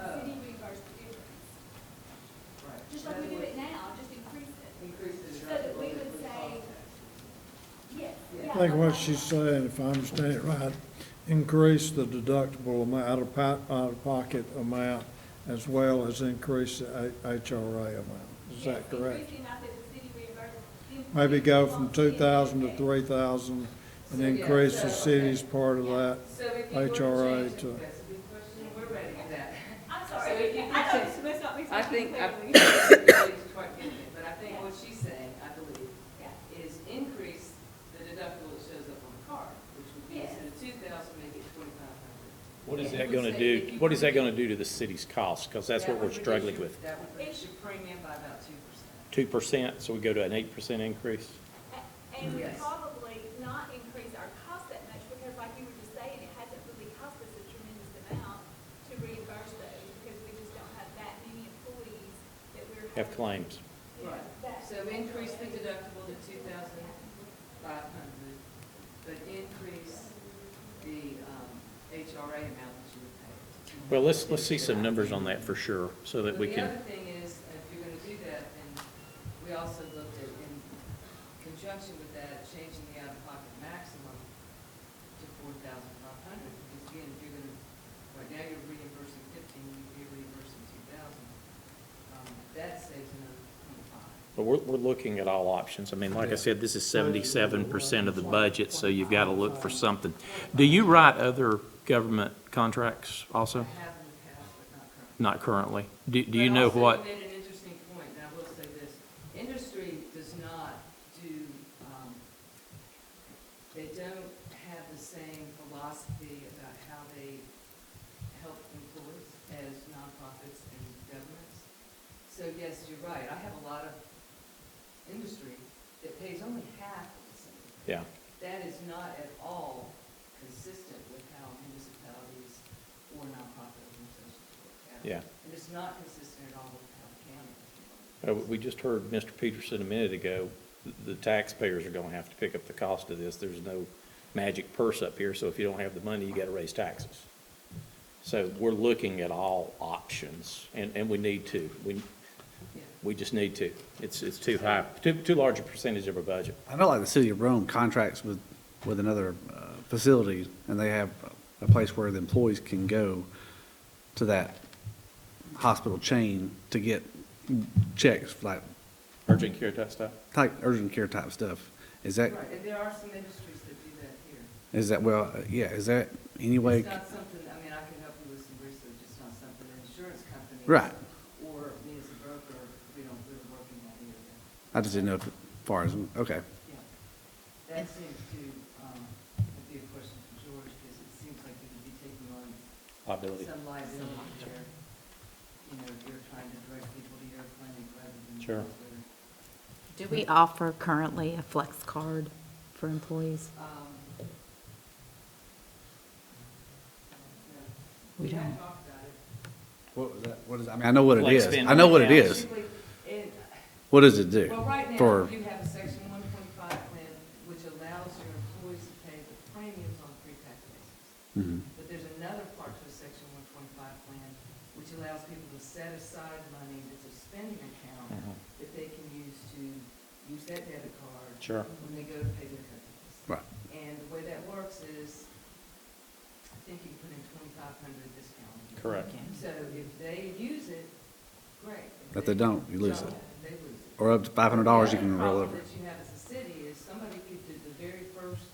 Oh. I think what she's saying, if I understand it right, increase the deductible amount, out of po- out of pocket amount, as well as increase the A- HRA amount. Is that correct? Maybe go from two thousand to three thousand and increase the city's part of that. So if you were to HRA change it, to- that's a good question, we're ready for that. I'm So if sorry, you I could know check- this must not be I spoken think, I clearly. believe, but I think what she's saying, I believe, Yeah. is increase the deductible that shows up on the card, which would be instead of two thousand, make it twenty-five hundred. What is that gonna do, what is that gonna do to the city's costs? Because that's what we're struggling with. That would reduce your premium by about two percent. Two percent, so we go to an eight percent increase? And we Yes. probably not increase our cost that much, because like you were just saying, it hasn't really cost us a tremendous amount to reimburse those, because we just don't have that many employees that we're. Have having- claims. Yeah, Right. that- So increase the deductible to two thousand five hundred, but increase the, um, HRA amount that you would pay. Well, let's, let's see some numbers on that for sure, so that But we The can, other thing is, uh, if you're gonna do that, then we also looked at, in conjunction with that, changing the out-of-pocket maximum to four thousand five hundred, because again, if you're gonna, right now you're reimbursing fifteen, you're reimbursing two thousand. Um, that saves another twenty-five. but we're, we're looking at all options. I mean, like I said, this is seventy-seven percent of the budget, so you've got to look for something. Do you write other government contracts also? I have in the past, but not currently. Not currently. Do, do you But know also, what? you made an interesting point, and I will say this, industry does not do, um, they don't have the same philosophy about how they help employees as nonprofits and governments. So yes, you're right, I have a lot of industry that pays only half of the same. Yeah, That is not at all consistent with how municipalities or nonprofit organizations work out. yeah. And it's not consistent at all with how the county is doing. Uh, We just heard Mr. Peterson a minute ago, the taxpayers are going to have to pick up the cost of this. There's no magic purse up here, so if you don't have the money, you got to raise taxes. So we're looking at all options, and, and we need to. We, Yeah. we just need to. It's, it's too high, too, too large a percentage of our budget. I felt like the city of Rome contracts with, with another uh, facility, and they have a place where the employees can go to that hospital chain to get checks, like, Urgent care type stuff? type urgent care type stuff. Is that, Right, and there are some industries that do that here. is that, well, yeah, is that any way? It's not something, I mean, I can help you with some research, it's not something that insurance companies. Right. Or me as a broker, we don't really work in that area. I just didn't know if, as far as, okay. Yeah. That seems to, um, would be a question for George, because it seems like you could be taking on Liability. some liability there. You know, if you're trying to direct people to your clinic rather than. Sure. elsewhere. Do we offer currently a flex card for employees? Um, yeah. We We don't. have talked about it. What was that, what is, I mean, I know what it Flex is. spend I know on what it accounts. is. Basically, it- What does it do? Well, right now, for- you have a section one twenty-five plan, which allows your employees to pay the premiums on a pre-tax basis. Mhm. But there's another part to a section one twenty-five plan, which allows people to set aside money that's a spending account Mm-hmm. Mhm. that they can use to use that debit card. Sure. When they go to pay their companies. Right. And the way that works is, I think you can put in twenty-five hundred this calendar year. Correct. So if they use it, great. If they don't, you lose don't, They it. lose it. Or up to five hundred dollars you The can other roll over. problem that you have as a city is somebody could do the very first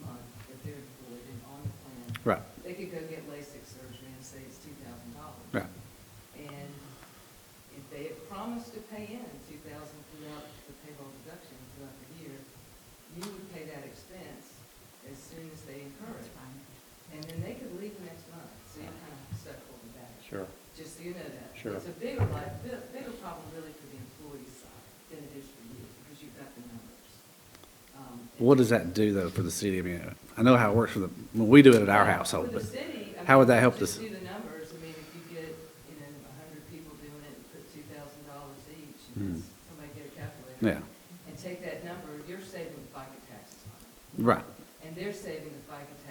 month that they're employed and on the plan, Right, they could go get LASIK surgery and say it's two thousand dollars. right. And if they had promised to pay in two thousand throughout the payroll deduction throughout the year, you would pay that expense as soon as they incur it. And then they could leave next month, so you're kind of stuck holding back. Sure. Just so you know that. Sure. It's a bigger, li- bi- bigger problem really for the employee side than it is for you, because you've got the numbers. Um, and- What does that do though for the city? I mean, I know how it works for the, when we do it at our household, For but the city, I how would mean, that help just this- do the numbers, I mean, if you get, you know, a hundred people doing it, and put two thousand dollars each, and Hmm. it's- somebody get a calculator. yeah, And take that number, you're saving the FICA taxes on it, right. and they're saving the FICA